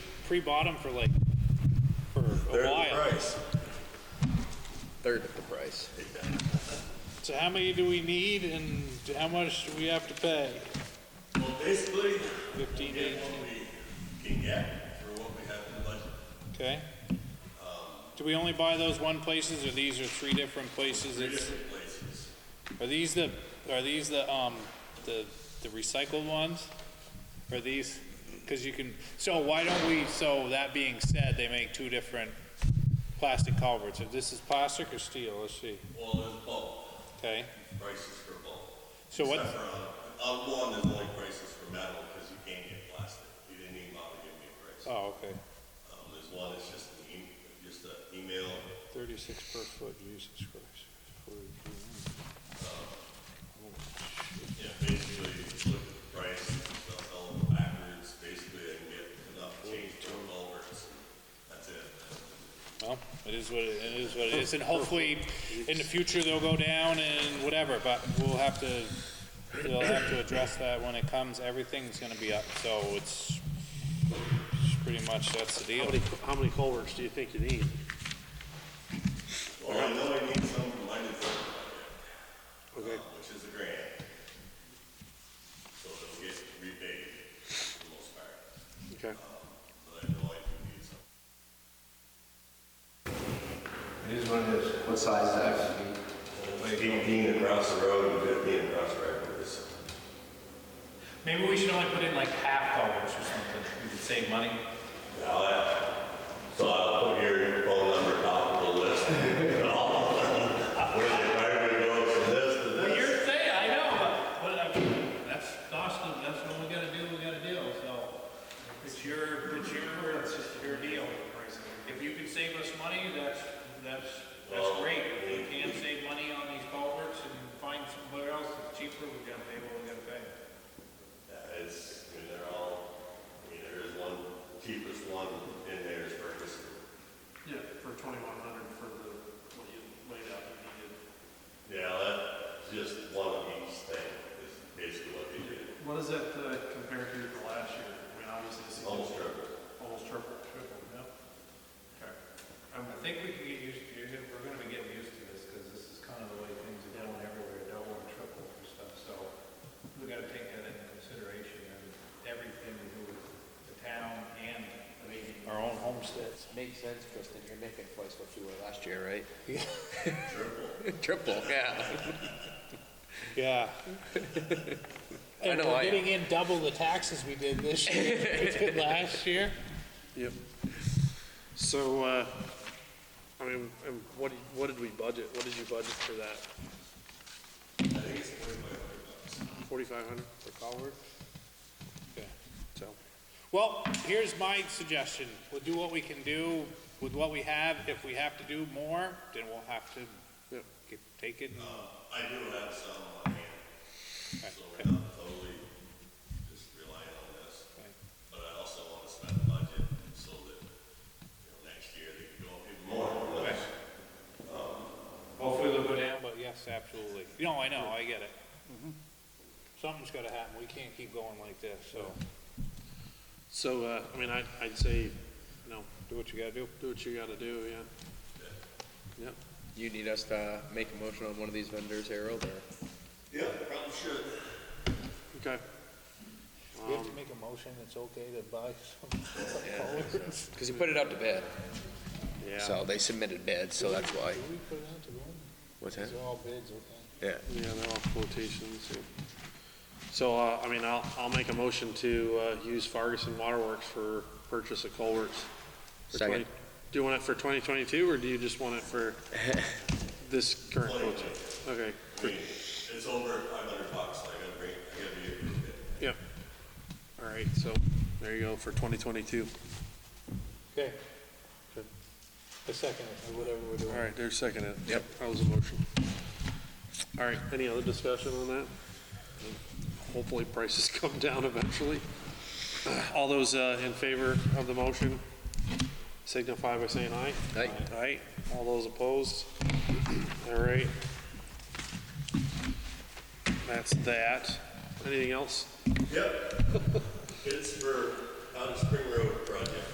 pre-bought them for like, for They're a the while. price. Third of the price. So how many do we need and how much do we have to pay? Well, basically, Fifteen, get eighteen, what we can get for what we have in the budget. okay? Do we only buy those one places or these are three different places? Three It's- different places. Are these the, are these the, um, the, the recycled ones? Are these, cause you can, so why don't we, so that being said, they make two different plastic culverts. If this is plastic or steel, let's see, Well, there's bulk, okay? prices for bulk. So what, Except for on, on one, there's only prices for metal, because you can't get plastic. You didn't even bother giving me a price. oh, okay, Um, there's one, that's just an e, just an email, thirty-six per foot, Jesus Christ. 42. you know, basically, you look at the price, they'll sell them backwards, basically, they can get enough change for culverts, and that's it. Well, it is what, it it is what it is, and hopefully, in the future, they'll go down and whatever, but we'll have to, we'll have to address that when it comes, everything's gonna be up, so it's, it's pretty much, that's the How deal. many, how many culverts do you think you need? Well, I know I need some for my new phone Okay. project, which is a grant. So it'll get repaid for the most part, Okay. but I know I do need some. It is what it is. What size is that? Fifteen across the road and fifteen across Rackhurst. Maybe we should only put in like half dollars or something, we could save money. Now that, so I'll put your phone number top of the list. and all. Where the primary goes from this to You're this. saying, I know, but, but I mean, that's costing, that's what we gotta do, we gotta deal, so. It's your, it's your, it's your deal. If you can save us money, that's, that's, that's great. If you can save money on these culverts and find somewhere else that's cheaper, we gotta pay what we gotta pay. Yeah, it's, I mean, they're all, I mean, there is one, cheapest one in there is Ferguson. Yeah, for twenty-one hundred for the, what you laid out you needed. Yeah, that's just one of each thing, is basically what they did. What does that uh, compare to for last year? I mean, obviously, this is Almost triple. almost triple, triple, yeah. Okay. Um, I think we can get used to, you're- we're gonna be getting used to this, because this is kind of the way things are going everywhere, double and triple for stuff, so we gotta take that into consideration, and everything we do with the town and, I mean, Our own homesteads. Makes sense, Kristen, you're making twice what you were last year, right? Triple. Triple, yeah. Yeah. I know I am. Getting in double the taxes we did this year, we did last year. Yep. So, uh, I mean, and what, do you- what did we budget? What did you budget for that? I think it's forty-five hundred bucks. Forty-five hundred per culvert? Okay. So, Well, here's my suggestion. We'll do what we can do with what we have. If we have to do more, then we'll have to Yep. get- take it. and- Uh, I do have some on hand, so okay. we're not totally just relying on this. Okay. But I also want to spend a budget so that, you know, next year they can go up even more. Okay. Hopefully they'll go down, but yes, absolutely. No, I know, I get it. Something's gotta happen. We can't keep going like this, so so, uh, I mean, I, I'd say, you know, do what you gotta do. do what you gotta do, yeah. Yep. You need us to make a motion on one of these vendors, Harold, or? Yeah, probably should. Okay. We have to make a motion, it's okay to buy some. Because you put it out to bid, Yeah. so they submitted bids, so that's why. we put it out to one? What's that? all bids, okay? Yeah. Yeah, they're all quotations, yeah. So, uh, I mean, I'll, I'll make a motion to, uh, use Fargus and Waterworks for purchase of culverts. for Second. 20 Do you want it for twenty twenty-two, or do you just want it for this current quote? Okay, I mean, it's over five hundred bucks, I gotta bring, I gotta be a good bit. yeah. All right, so, there you go, for twenty twenty-two. Okay. A second, or whatever we're doing. All right, there's second it. Yep. That was a motion. All right, any other discussion on that? Hopefully prices come down eventually. All those uh, in favor of the motion signify by saying aye. Aye. Aye. All those opposed? All right. That's that. Anything else? Yep. It's for, out of uh, Spring Road project.